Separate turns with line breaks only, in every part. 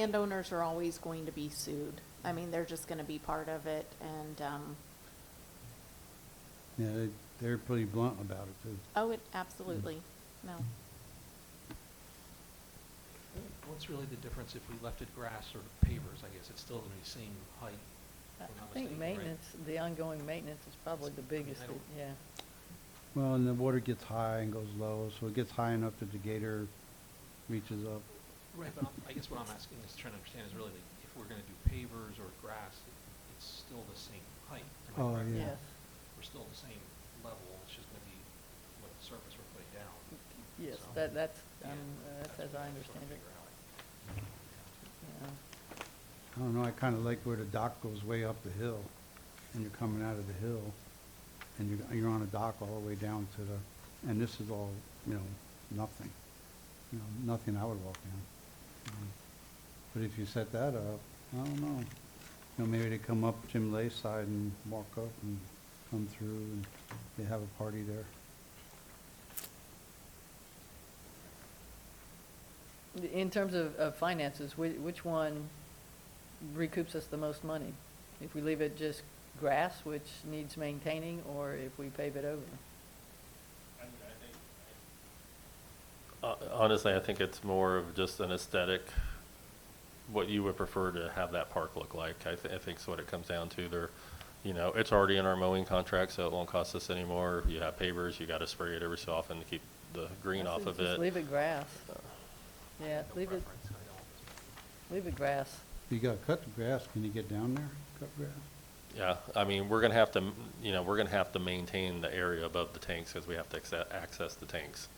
landowners are always going to be sued. I mean, they're just gonna be part of it, and, um,
Yeah, they, they're pretty blunt about it too.
oh, it, absolutely, no.
What's really the difference if we left it grass or pavers, I guess? It's still gonna be the same height.
I
if I'm not
I think
mistaken, right?
maintenance, the ongoing maintenance is probably the biggest,
I don't-
yeah.
Well, and the water gets high and goes low, so it gets high enough that the gator reaches up.
Right, but I'm- I guess what I'm asking is trying to understand is really like, if we're gonna do pavers or grass, it's still the same height. am I
Oh,
correct?
Yeah.
Yes,
We're still the same level, it's just gonna be what surface we're putting down.
yes,
So-
that, that's,
Yeah,
um, uh, that's as
what
I
I'm just trying
understand
to
it,
figure out.
yeah.
I don't know, I kinda like where the dock goes way up the hill, and you're coming out of the hill, and you're, you're on a dock all the way down to the, and this is all, you know, nothing. You know, nothing I would walk down. Um, But if you set that up, I don't know, you know, maybe they come up Jim Lay's side and walk up and come through, and they have a party there.
In terms of, of finances, whi- which one recoups us the most money? If we leave it just grass, which needs maintaining, or if we pave it over?
Uh, Honestly, I think it's more of just an aesthetic, what you would prefer to have that park look like. I, th- I think's what it comes down to. There, you know, it's already in our mowing contract, so it won't cost us anymore. You have pavers, you got to spray it every so often to keep the green
I
off
think
of
Just
it.
leave it grass. Yeah,
No
leave it,
preference, I don't.
leave it grass.
You gotta cut the grass, can you get down there, cut grass?
Yeah, I mean, we're gonna have to, m- you know, we're gonna have to maintain the area above the tanks because we have to acce- access the tanks.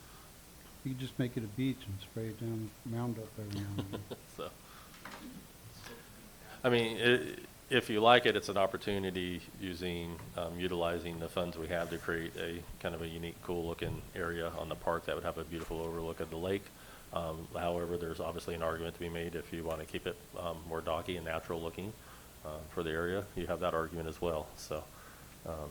You could just make it a beach and spray it down, mound up every now and then.
So, I mean, i- if you like it, it's an opportunity using, um, utilizing the funds we have to create a kind of a unique, cool-looking area on the park that would have a beautiful overlook of the lake. Um, however, there's obviously an argument to be made if you want to keep it, um, more doggy and natural-looking, uh, for the area, you have that argument as well, so. um,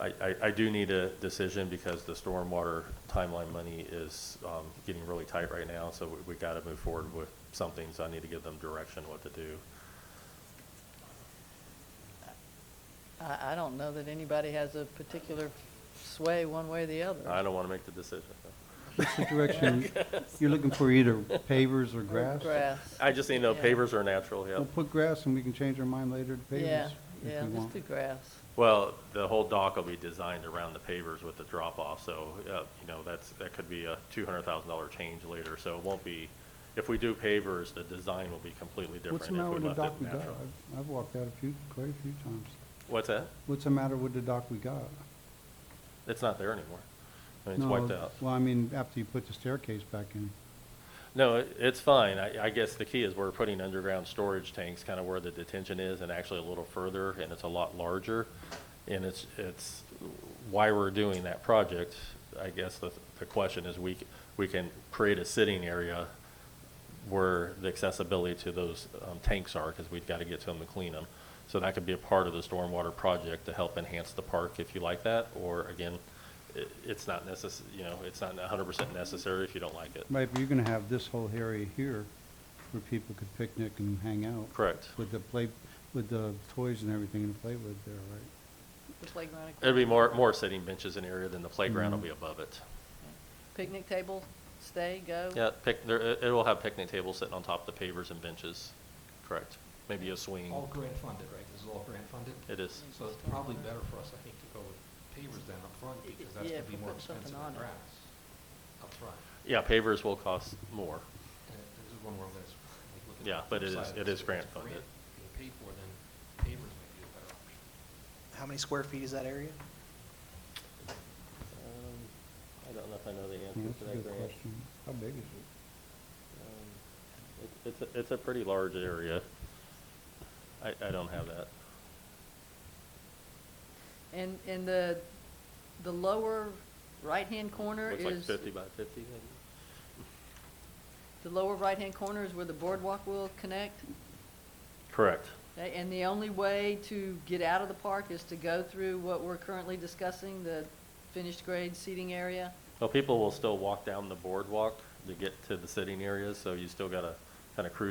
I, I, I do need a decision because the stormwater timeline money is, um, getting really tight right now, so we, we gotta move forward with something, so I need to give them direction what to do.
I, I don't know that anybody has a particular sway one way or the other.
I don't wanna make the decision.
What's the direction, you're looking for either pavers or
Or
grass?
Grass.
I just need to know
Yeah.
pavers are natural, yeah.
We'll put grass and we can change our mind later to
Yeah,
pavers
yeah,
if we
just
want.
do grass.
Well, the whole dock will be designed around the pavers with the drop-off, so, uh, you know, that's, that could be a two hundred thousand dollar change later, so it won't be, if we do pavers, the design will be completely different
What's
if
the
we
matter with the
left
dock
it
we got?
natural.
I've- I've walked out a few, quite a few times.
What's that?
What's the matter with the dock we got?
It's not there anymore. I mean, it's
No,
wiped out.
Well, I mean, after you put the staircase back in.
No, it- it's fine. I, I guess the key is we're putting underground storage tanks kind of where the detention is and actually a little further and it's a lot larger. And it's, it's why we're doing that project. I guess the, the question is we, c- we can create a sitting area where the accessibility to those um, tanks are because we've got to get to them to clean them. So that could be a part of the stormwater project to help enhance the park if you like that. Or again, i it's not necess, you know, it's not hundred percent necessary if you don't like it.
Right, but you're gonna have this whole area here where people could picnic and hang out
Correct.
with the play, with the toys and everything to play with there, right?
The playground.
It'll be more, more sitting benches in area than the playground will
Mm-hmm.
be above it.
Picnic table, stay, go?
Yeah, pic, there, it, it will have picnic tables sitting on top of the pavers and benches, correct? Maybe a swing,
All grant funded, right? This is all grant funded?
it is.
So it's probably better for us, I think, to go with pavers than up front because that's
Yeah,
gonna
if
be
we're
more
putting something
expensive
on
than
it.
grass up front.
Yeah, pavers will cost more,
And it- this is one where I'm gonna, like, look at.
Yeah, but it is-
upside of
it
this.
is
If
grant
it's
funded.
Being paid for, then pavers might be a better option.
How many square feet is that area?
Um, I don't know if I know the
Yeah,
answer
That's
to
a
that
good
grant.
question. How big is it?
Um, it- It's, a- it's a pretty large area. I, I don't have that.
And, and the, the lower right-hand corner
Looks like
is,
fifty by fifty, maybe?
the lower right-hand corner is where the boardwalk will connect.
Correct.
Okay, And the only way to get out of the park is to go through what we're currently discussing, the finished grade seating area.
Well, people will still walk down the boardwalk to get to the sitting areas, so you still gotta kind of cruise